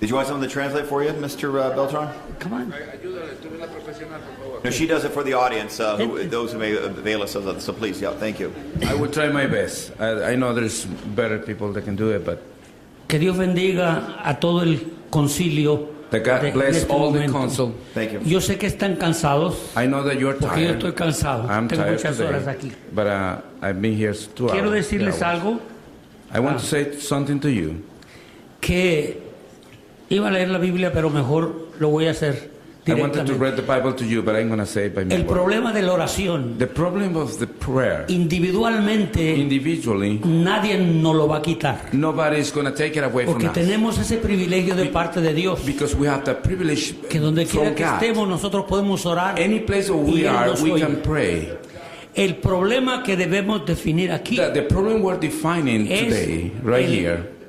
Did you want someone to translate for you, Mr. uh, Beltran? Come on. Ayúdale, tú eres la profesional, por favor. No, she does it for the audience, uh, who, those who may avail themselves of it. So please, yeah, thank you. I will try my best. I, I know there's better people that can do it, but Que Dios bendiga a todo el concilio. that God de- en bless este all the momento. council. Thank you. Yo sé que están cansados I know that you're porque yo tired. estoy cansado. I'm Tengo tired muchas horas today, aquí. but uh, I've been here two hours. Quiero decirles three hours. algo I want to Ah. say something to you. que iba a leer la Biblia, pero mejor lo voy a hacer I wanted to directamente. read the Bible to you, but I'm going to say it by my El word. problema de la oración The problem of the prayer, individualmente individually, nadie nos lo va a quitar nobody is going to take it away from porque us. tenemos ese privilegio de parte de Dios Because we have the privilege que donde from quiera que God. estemos nosotros podemos orar. Any place where y we Él are, nos we oye. can pray. El problema que debemos definir aquí The, the problem we're defining Es today, right el- here,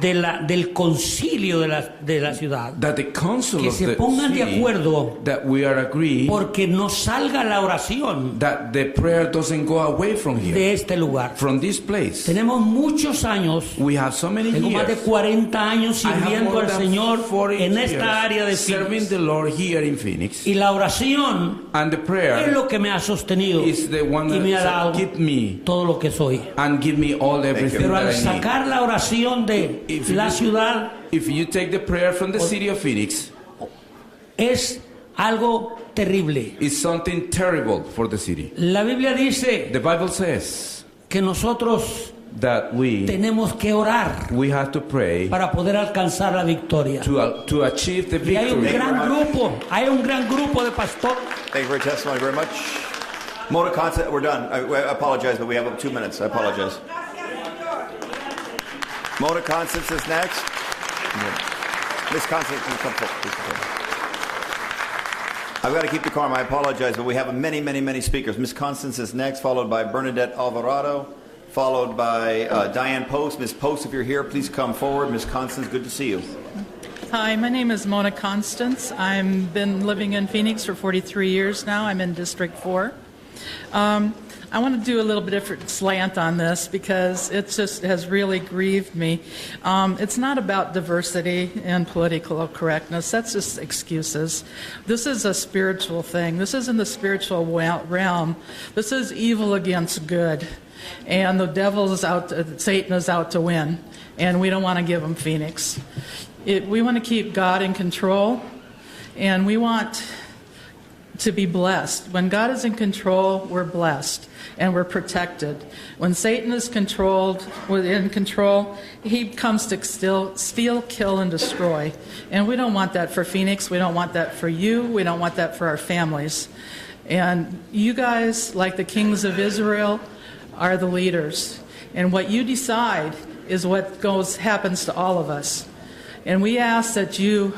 de la, del concilio de la, de la ciudad, that the council que of se the pongan de city, acuerdo that we are agree porque no salga la oración that the prayer doesn't go away from here, de este lugar. from this place. Tenemos muchos años, We have so many tengo más de years. 40 años I have sirviendo more al than Señor 40 en years esta área de serving Phoenix. the Lord here in Phoenix. Y la oración And the es prayer lo que me ha sostenido is the one y me ha that dado said, keep me todo lo que soy. and give me all everything Pero al that I need. sacar la oración de If la you- ciudad, If you take the prayer from the city of Phoenix, es algo terrible. it's something terrible for the city. La Biblia dice The Bible says que nosotros that we tenemos que orar we have to pray para poder alcanzar la victoria. to to achieve the Y hay un victory. gran grupo, hay un gran grupo de pastores. Thank you for your testimony very much. Mona Consta, we're done. I, I apologize, but we have two minutes. I apologize. Mona Constance is next. Miss Constance, you come forward. Please come forward. I've got to keep the calm. I apologize, but we have many, many, many speakers. Miss Constance is next, followed by Bernadette Alvarado, followed by uh, Diane Post. Miss Post, if you're here, please come forward. Miss Constance, good to see you. Hi, my name is Mona Constance. I've been living in Phoenix for 43 years now. I'm in District 4. Um, I want to do a little bit different slant on this because it just has really grieved me. Um, it's not about diversity and political correctness. That's just excuses. This is a spiritual thing. This is in the spiritual wa- realm. This is evil against good. And the devil is out, to, Satan is out to win. And we don't want to give him Phoenix. It, we want to keep God in control. And we want to be blessed. When God is in control, we're blessed and we're protected. When Satan is controlled, we're in control, he comes to still steal, kill, and destroy. And we don't want that for Phoenix. We don't want that for you. We don't want that for our families. And you guys, like the kings of Israel, are the leaders. And what you decide is what goes happens to all of us. And we ask that you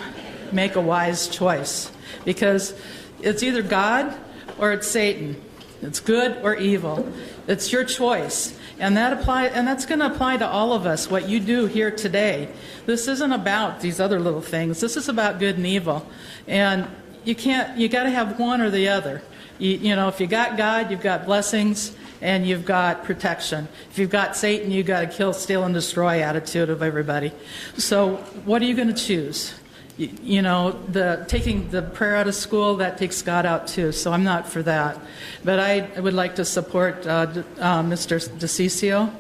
make a wise choice because it's either God or it's Satan. It's good or evil. It's your choice. And that apply and that's going to apply to all of us what you do here today. This isn't about these other little things. This is about good and evil. And you can't you got to have one or the other. You, you know, if you got God, you've got blessings and you've got protection. If you've got Satan, you've got a kill, steal, and destroy attitude of everybody. So, what are you going to choose? You, you know, the taking the prayer out of school that takes God out too. So I'm not for that, but I, would like to support uh, d- uh, Mr. DeCiccio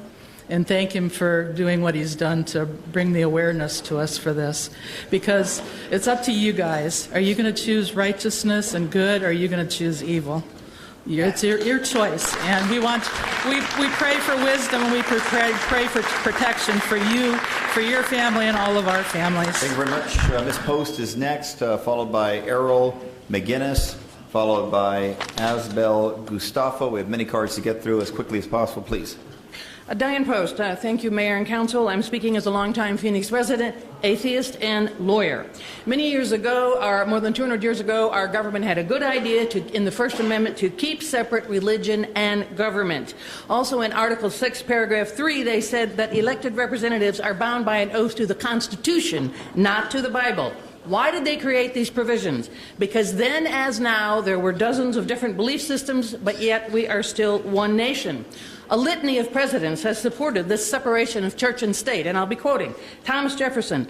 and thank him for doing what he's done to bring the awareness to us for this. Because it's up to you guys. Are you going to choose righteousness and good, or are you going to choose evil? You- It's your, your choice. And we want, we, we pray for wisdom and we pre- pray, pray for protection for you, for your family, and all of our families. Thank you very much. Uh, Miss Post is next, uh, followed by Errol McGinnis, followed by Asbel Gustafo. We have many cards to get through as quickly as possible, please. Uh, Diane Post, uh, thank you, Mayor and Council. I'm speaking as a longtime Phoenix resident, atheist, and lawyer. Many years ago, or more than 200 years ago, our government had a good idea to, in the First Amendment to keep separate religion and government. Also, in Article 6, Paragraph 3, they said that elected representatives are bound by an oath to the Constitution, not to the Bible. Why did they create these provisions? Because then, as now, there were dozens of different belief systems, but yet we are still one nation. A litany of presidents has supported this separation of church and state, and I'll be quoting Thomas Jefferson,